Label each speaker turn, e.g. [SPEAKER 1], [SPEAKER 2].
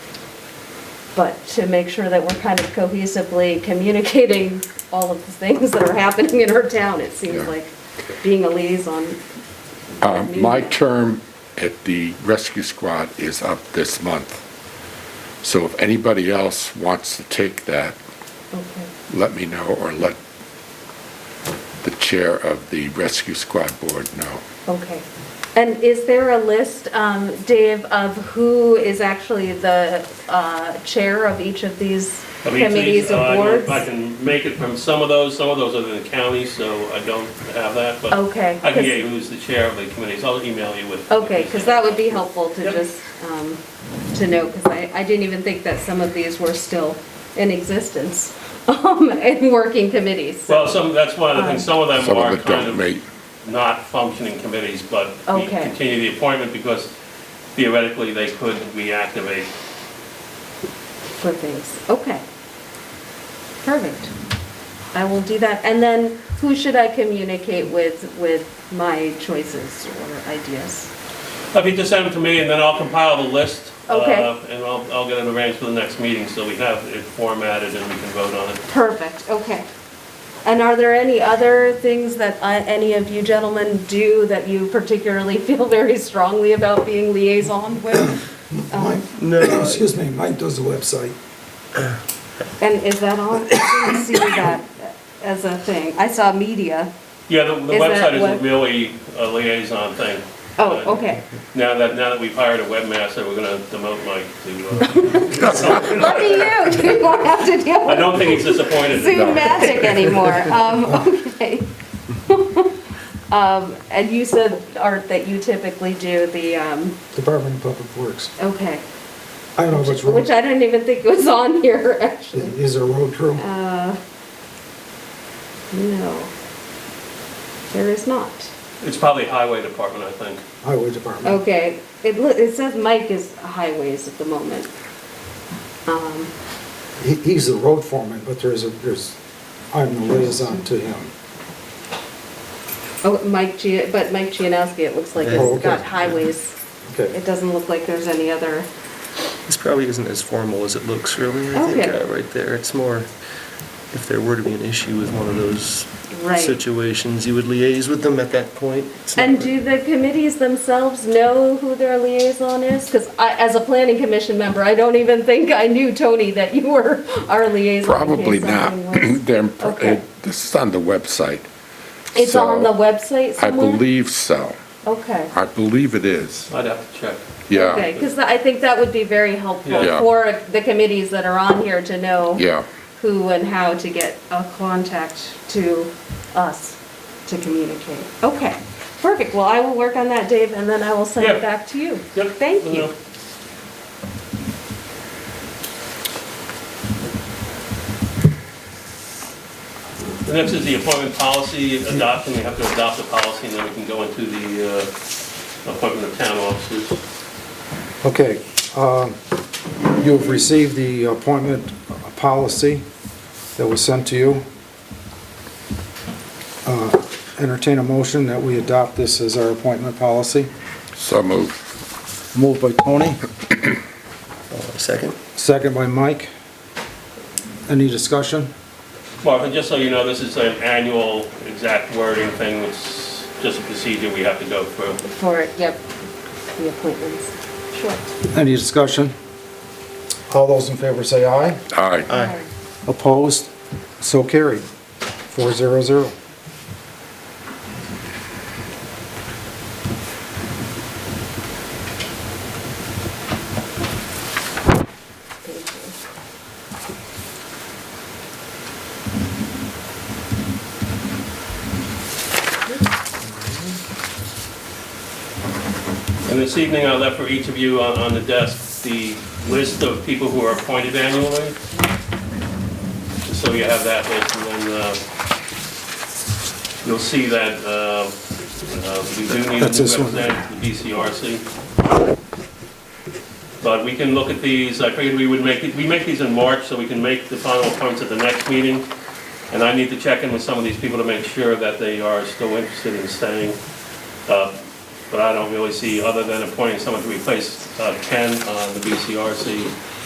[SPEAKER 1] but to make sure that we're kind of cohesively communicating all of the things that are happening in our town, it seems
[SPEAKER 2] Yeah.
[SPEAKER 1] like, being a liaison.
[SPEAKER 2] Uh, My term at the rescue squad is up this month. So if anybody else wants to take that,
[SPEAKER 1] Okay.
[SPEAKER 2] let me know or let the chair of the rescue squad board know.
[SPEAKER 1] Okay. And is there a list, um, Dave, of who is actually the uh, chair of each of these
[SPEAKER 3] I mean,
[SPEAKER 1] committees
[SPEAKER 3] please, uh, I
[SPEAKER 1] or
[SPEAKER 3] don't know if
[SPEAKER 1] boards?
[SPEAKER 3] I can make it from some of those, some of those are in the county, so I don't have that, but
[SPEAKER 1] Okay,
[SPEAKER 3] I can
[SPEAKER 1] 'cause-
[SPEAKER 3] get you who's the chair of the committees. I'll email you with.
[SPEAKER 1] Okay, because that would be helpful to
[SPEAKER 3] Yep.
[SPEAKER 1] just, um, to know, because I, I didn't even think that some of these were still in existence um, and working committees.
[SPEAKER 3] Well, some, that's one of the things, some of them
[SPEAKER 2] Some
[SPEAKER 3] are
[SPEAKER 2] of it
[SPEAKER 3] kind
[SPEAKER 2] don't
[SPEAKER 3] of
[SPEAKER 2] make,
[SPEAKER 3] not functioning committees, but we
[SPEAKER 1] Okay.
[SPEAKER 3] continue the appointment because theoretically they could reactivate.
[SPEAKER 1] for things. Okay. Perfect. I will do that. And then who should I communicate with, with my choices or ideas?
[SPEAKER 3] If you just send them to me and then I'll compile the list.
[SPEAKER 1] Okay.
[SPEAKER 3] uh, And I'll, I'll get it arranged for the next meeting, so we have it formatted and we can vote on it.
[SPEAKER 1] Perfect, okay. And are there any other things that I- any of you gentlemen do that you particularly feel very strongly about being liaison with?
[SPEAKER 4] Mike, Um, excuse me, Mike does the website.
[SPEAKER 1] And is that on? I didn't see that as a thing. I saw media.
[SPEAKER 3] Yeah, the, the
[SPEAKER 1] Is that
[SPEAKER 3] website
[SPEAKER 1] what-
[SPEAKER 3] isn't really a liaison thing.
[SPEAKER 1] Oh, okay.
[SPEAKER 3] Now that, now that we've hired a webmaster, we're gonna demote Mike to,
[SPEAKER 1] Lucky you, you won't have to deal
[SPEAKER 3] uh, I
[SPEAKER 1] with
[SPEAKER 3] don't think he's disappointed.
[SPEAKER 1] Zoom magic anymore. Um, okay. Um, and you said, Art, that you typically do the, um,
[SPEAKER 4] Department of Public Works.
[SPEAKER 1] okay,
[SPEAKER 4] I don't know if it's road,
[SPEAKER 1] which I didn't even think was on here, actually.
[SPEAKER 4] is there a road crew?
[SPEAKER 1] Uh, No. There is not.
[SPEAKER 3] It's probably highway department, I think.
[SPEAKER 4] Highway Department.
[SPEAKER 1] Okay, it, li- it says Mike is highways at the moment. Um,
[SPEAKER 4] He, he's the road foreman, but there's a, there's, I'm the liaison to him.
[SPEAKER 1] oh, Mike Gia, but Mike Gianowski, it looks like
[SPEAKER 4] Oh,
[SPEAKER 1] he's
[SPEAKER 4] okay.
[SPEAKER 1] got highways. It
[SPEAKER 4] Okay.
[SPEAKER 1] doesn't look like there's any other,
[SPEAKER 5] This probably isn't as formal as it looks, really, I think,
[SPEAKER 1] Okay.
[SPEAKER 5] uh, right there. It's more, if there were to be an issue with one of those
[SPEAKER 1] right.
[SPEAKER 5] situations, you would liaise with them at that point. It's not
[SPEAKER 1] And
[SPEAKER 5] like-
[SPEAKER 1] do the committees themselves know who their liaison is? Because I, as a planning commission member, I don't even think I knew, Tony, that you were our liaison. in
[SPEAKER 2] probably
[SPEAKER 1] case
[SPEAKER 2] not.
[SPEAKER 1] something was-
[SPEAKER 2] They're, pr-
[SPEAKER 1] Okay.
[SPEAKER 2] it- this is on the website.
[SPEAKER 1] It's on the
[SPEAKER 2] So,
[SPEAKER 1] website
[SPEAKER 2] I
[SPEAKER 1] somewhere?
[SPEAKER 2] believe so.
[SPEAKER 1] Okay.
[SPEAKER 2] I believe it is.
[SPEAKER 3] I'd have to check.
[SPEAKER 2] Yeah,
[SPEAKER 1] Okay, because I think that would be very helpful
[SPEAKER 2] Yeah.
[SPEAKER 1] for the committees that are on here to know
[SPEAKER 2] yeah.
[SPEAKER 1] who and how to get a contact to us to communicate. Okay, perfect. Well, I will work on that, Dave, and then I will send
[SPEAKER 3] Yeah.
[SPEAKER 1] it back to you.
[SPEAKER 3] Yep.
[SPEAKER 1] Thank you.
[SPEAKER 3] Uh, The next is the appointment policy adoption. We have to adopt the policy and then we can go into the, uh, appointment of town officers.
[SPEAKER 4] Okay, um, you've received the appointment policy that was sent to you. Uh, Entertain a motion that we adopt this as our appointment policy.
[SPEAKER 2] So moved.
[SPEAKER 4] Moved by Tony,
[SPEAKER 5] Uh, Second?
[SPEAKER 4] second by Mike. Any discussion?
[SPEAKER 3] Marvin, just so you know, this is an annual exact wording thing, it's just a procedure we have to go through.
[SPEAKER 1] For, yep, the appointments. Sure.
[SPEAKER 4] Any discussion? All those in favor say aye.
[SPEAKER 2] Aye.
[SPEAKER 5] Aye.
[SPEAKER 4] Opposed? So carried. Four zero zero.
[SPEAKER 1] Thank
[SPEAKER 3] And this evening, I left for each of you on, on the desk the list of people who are appointed annually. Just so you have that list, and then, uh, you'll see that, uh, uh, we do need a new
[SPEAKER 4] That's this one.
[SPEAKER 3] representative to the BCRC. But we can look at these, I figured we would make, we make these in March, so we can make the final appointments at the next meeting. And I need to check in with some of these people to make sure that they are still interested in staying. Uh, But I don't really see, other than appointing someone to replace uh, Ken on the BCRC,